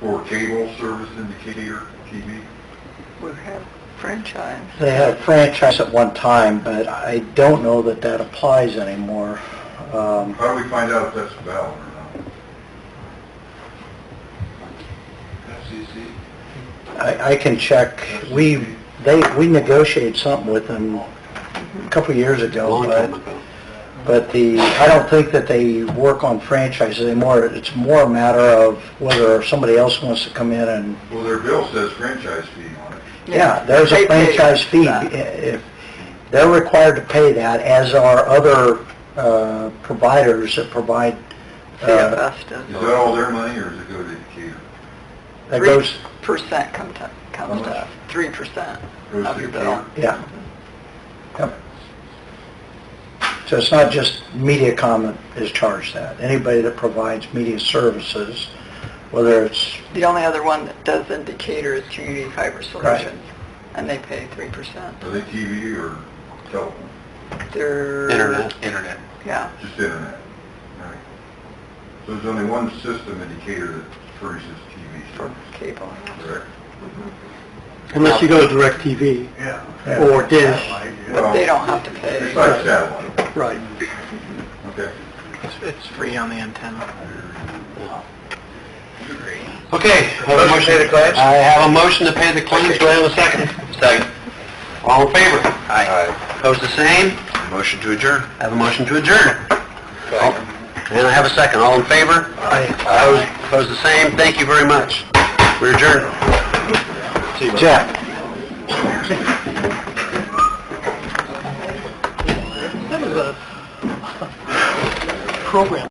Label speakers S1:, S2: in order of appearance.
S1: for cable service indicator TV?
S2: We have franchise.
S3: They had a franchise at one time, but I don't know that that applies anymore. Um,
S1: How do we find out if that's valid or not? FCC?
S3: I, I can check, we, they, we negotiated something with them a couple of years ago, but, but the, I don't think that they work on franchises anymore. It's more a matter of whether somebody else wants to come in and,
S1: Well, their bill says franchise fee on it.
S3: yeah, there's a
S2: They pay
S3: franchise fee. uh,
S2: that.
S3: If, they're required to pay that, as are other, uh, providers that provide, uh,
S2: CFS
S1: Is
S2: does.
S1: that all their money or does it go to Decatur?
S3: that goes,
S2: Percent comes to, comes
S1: How much?
S2: to three percent
S1: Goes
S2: of
S1: to
S2: your bill.
S1: Decatur?
S3: yeah. So it's not just MediaCom that is charged that. Anybody that provides media services, whether it's,
S2: The only other one that does indicator is Community E Fiber Solutions, and they pay three percent.
S1: Are they TV or telephone?
S2: They're...
S4: Internet.
S2: Yeah,
S1: Just internet, right? So there's only one system indicator that furnishes TV
S2: for
S1: service,
S2: cable.
S1: correct?
S4: Unless you
S3: go to DirecTV
S1: Yeah.
S3: or Dish.
S2: But they don't have to
S1: It's
S2: pay.
S1: like satellite,
S3: Right.
S1: okay.
S4: It's free on the antenna. Okay. I
S3: Motion
S4: have a
S3: to pay the claims?
S4: I have a motion to pay the claims, do I have a second? Second. All in favor? Aye. Opposed the same? Motion to adjourn. I have a motion to adjourn. And I have a second, all in favor? Aye. Opposed, opposed the same, thank you very much. We're adjourned.
S3: Jeff?
S4: Program.